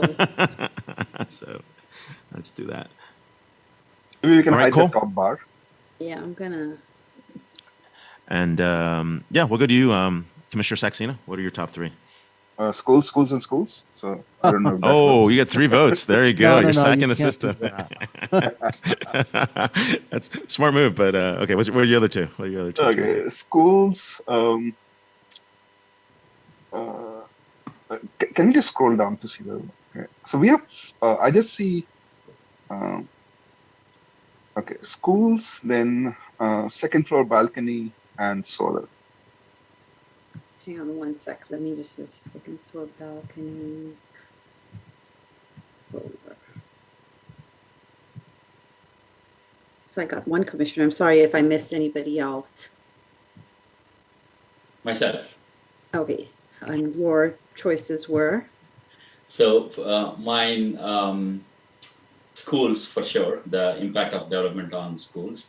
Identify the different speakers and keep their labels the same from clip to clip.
Speaker 1: so let's do that.
Speaker 2: Maybe we can
Speaker 1: Alright,
Speaker 2: hide
Speaker 1: cool.
Speaker 2: the top bar.
Speaker 3: Yeah, I'm gonna.
Speaker 1: And um, yeah, we'll go to you, um, Commissioner Saxena. What are your top three?
Speaker 2: Uh, schools, schools, and schools. So I don't know. If that
Speaker 1: Oh,
Speaker 2: works.
Speaker 1: you got three votes. There you go.
Speaker 4: No, no,
Speaker 1: You're
Speaker 4: no,
Speaker 1: sacking
Speaker 4: you
Speaker 1: the
Speaker 4: can't do
Speaker 1: system.
Speaker 4: that.
Speaker 1: That's a smart move, but uh, okay. What's, what are your other two? What are your other two?
Speaker 2: okay. Schools. Um, uh, can, can you just scroll down to see the? Okay. So we have. Uh, I just see. Um, okay, schools, then uh, second floor balcony and solar.
Speaker 3: Hang on one sec. Let me just just a second floor balcony. Solar. So I got one commissioner. I'm sorry if I missed anybody else.
Speaker 5: myself.
Speaker 3: Okay, and your choices were
Speaker 5: So uh, mine um, schools for sure. The impact of development on schools.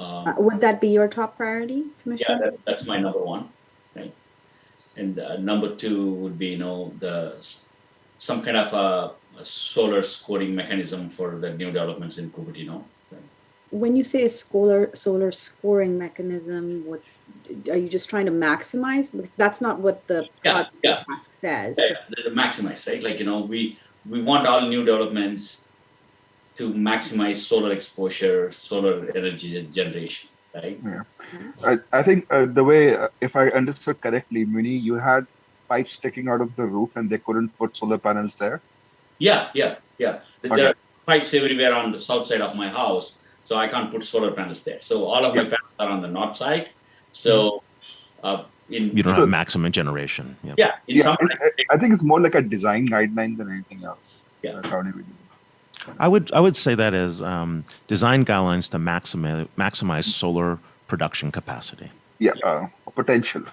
Speaker 3: uh,
Speaker 5: Um,
Speaker 3: would that be your top priority, Commissioner?
Speaker 5: yeah, that, that's my number one, right? And uh, number two would be you know the s- some kind of a, a solar scoring mechanism for the new developments in Cupertino. Right?
Speaker 3: When you say a scholar, solar scoring mechanism, what are you just trying to maximize? Because that's not what the
Speaker 5: Yeah,
Speaker 3: project
Speaker 5: yeah.
Speaker 3: task says.
Speaker 5: Yeah, yeah, the maximize, right? Like you know, we we want all new developments to maximize solar exposure, solar energy generation, right?
Speaker 2: I, I think uh, the way, uh, if I understood correctly, Muni, you had pipes sticking out of the roof and they couldn't put solar panels there.
Speaker 5: Yeah, yeah, yeah. There
Speaker 2: Okay.
Speaker 5: there are pipes everywhere on the south side of my house, so I can't put solar panels there. So all of my panels are on the north side. So uh, in
Speaker 1: Mm. You don't
Speaker 2: So-
Speaker 1: have maximum generation. Yeah.
Speaker 5: yeah, in
Speaker 2: yeah,
Speaker 5: some
Speaker 2: it's, I- I think it's more like a design guideline than anything else.
Speaker 5: Yeah.
Speaker 2: That's how they would do it.
Speaker 1: I would I would say that as um, design guidelines to maximize maximize solar production capacity
Speaker 2: Yeah, uh, potential.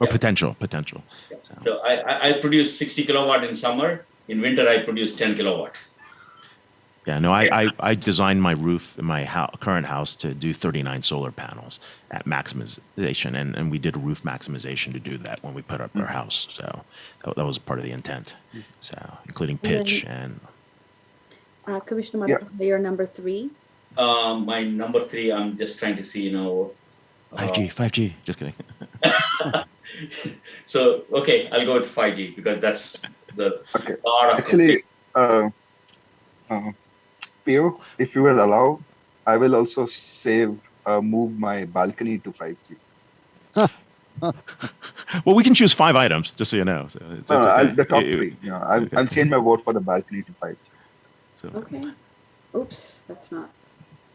Speaker 1: or
Speaker 5: Yeah.
Speaker 1: potential potential. So,
Speaker 5: so I, I, I produce 60 kilowatt in summer. In winter, I produce 10 kilowatt.
Speaker 1: yeah, no, I, I I designed my roof in my hou- current house to do 39 solar panels at maximization, and, and we did a roof maximization to do that when we put up our house. So that, that was part of the intent. So including
Speaker 3: then-
Speaker 1: pitch and
Speaker 3: Uh, Commissioner
Speaker 2: Yeah.
Speaker 3: Madhav, your number three.
Speaker 5: Um, my number three, I'm just trying to see, you know. uh,
Speaker 1: 5G, 5G. Just kidding.
Speaker 5: So okay, I'll go with 5G because that's the
Speaker 2: Okay.
Speaker 5: lot of
Speaker 2: Actually, uh, uh, Pio, if you will allow, I will also save, uh, move my balcony to 5G.
Speaker 1: Well, we can choose five items, just so you know. So it's, it's
Speaker 2: No, no,
Speaker 1: okay.
Speaker 2: Uh, I'll, the top
Speaker 1: It- it-
Speaker 2: three. You know, I'll,
Speaker 1: okay.
Speaker 2: I'll change my vote for the balcony to 5G.
Speaker 1: so-
Speaker 3: Okay. Oops, that's not.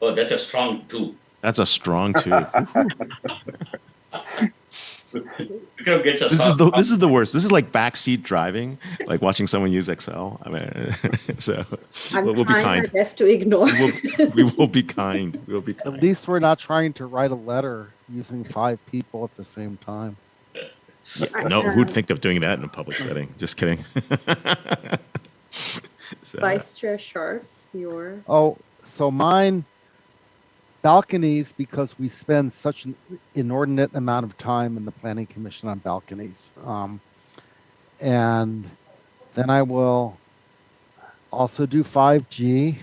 Speaker 5: Oh, that's a strong two.
Speaker 1: That's a strong two.
Speaker 5: Vikram gets a
Speaker 1: this is
Speaker 5: soft
Speaker 1: the
Speaker 5: copy.
Speaker 1: this is the worst. This is like backseat driving, like watching someone use Excel. I mean, so
Speaker 3: I'm
Speaker 1: we'll, we'll be
Speaker 3: trying
Speaker 1: kind.
Speaker 3: my best to ignore.
Speaker 1: We'll, we will be kind. We'll be
Speaker 4: At
Speaker 1: kind.
Speaker 4: least we're not trying to write a letter using five people at the same time.
Speaker 1: No, who'd
Speaker 3: Uh,
Speaker 1: think of doing that in a public setting? Just kidding. so,
Speaker 3: Vice Chair Sharf, your
Speaker 4: Oh, so mine balconies because we spend such an inordinate amount of time in the planning commission on balconies. Um, and then I will also do 5G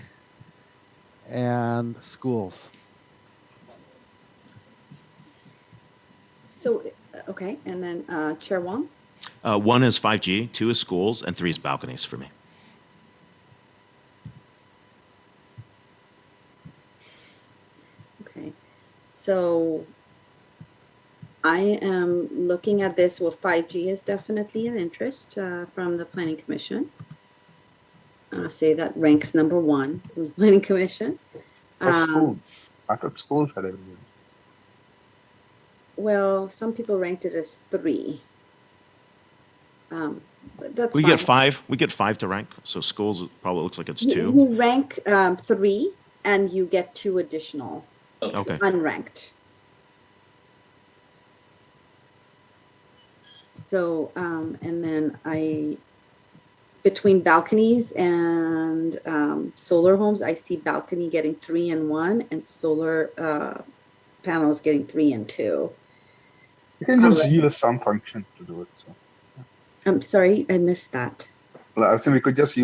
Speaker 4: and schools.
Speaker 3: so uh, okay, and then uh, Chair Wong.
Speaker 1: uh, one is 5G, two is schools, and three is balconies for me.
Speaker 3: Okay, so I am looking at this. Well, five G is definitely an interest uh, from the Planning Commission. Uh, say that ranks number one in the Planning Commission.
Speaker 2: For
Speaker 3: Um,
Speaker 2: schools. I thought schools had everything.
Speaker 3: Well, some people ranked it as three. Um, but that's
Speaker 1: We get
Speaker 3: fine.
Speaker 1: five. We get five to rank. So schools probably looks like it's
Speaker 3: You-
Speaker 1: two.
Speaker 3: You rank um, three, and you get two additional
Speaker 1: Okay.
Speaker 3: unranked. So, um, and then I, between balconies and um, solar homes, I see balcony getting three and one, and solar uh, panels getting three and two.
Speaker 2: You can just
Speaker 3: Alright.
Speaker 2: use some function to do it. So
Speaker 3: I'm sorry, I missed that.
Speaker 2: Well, I think we could just use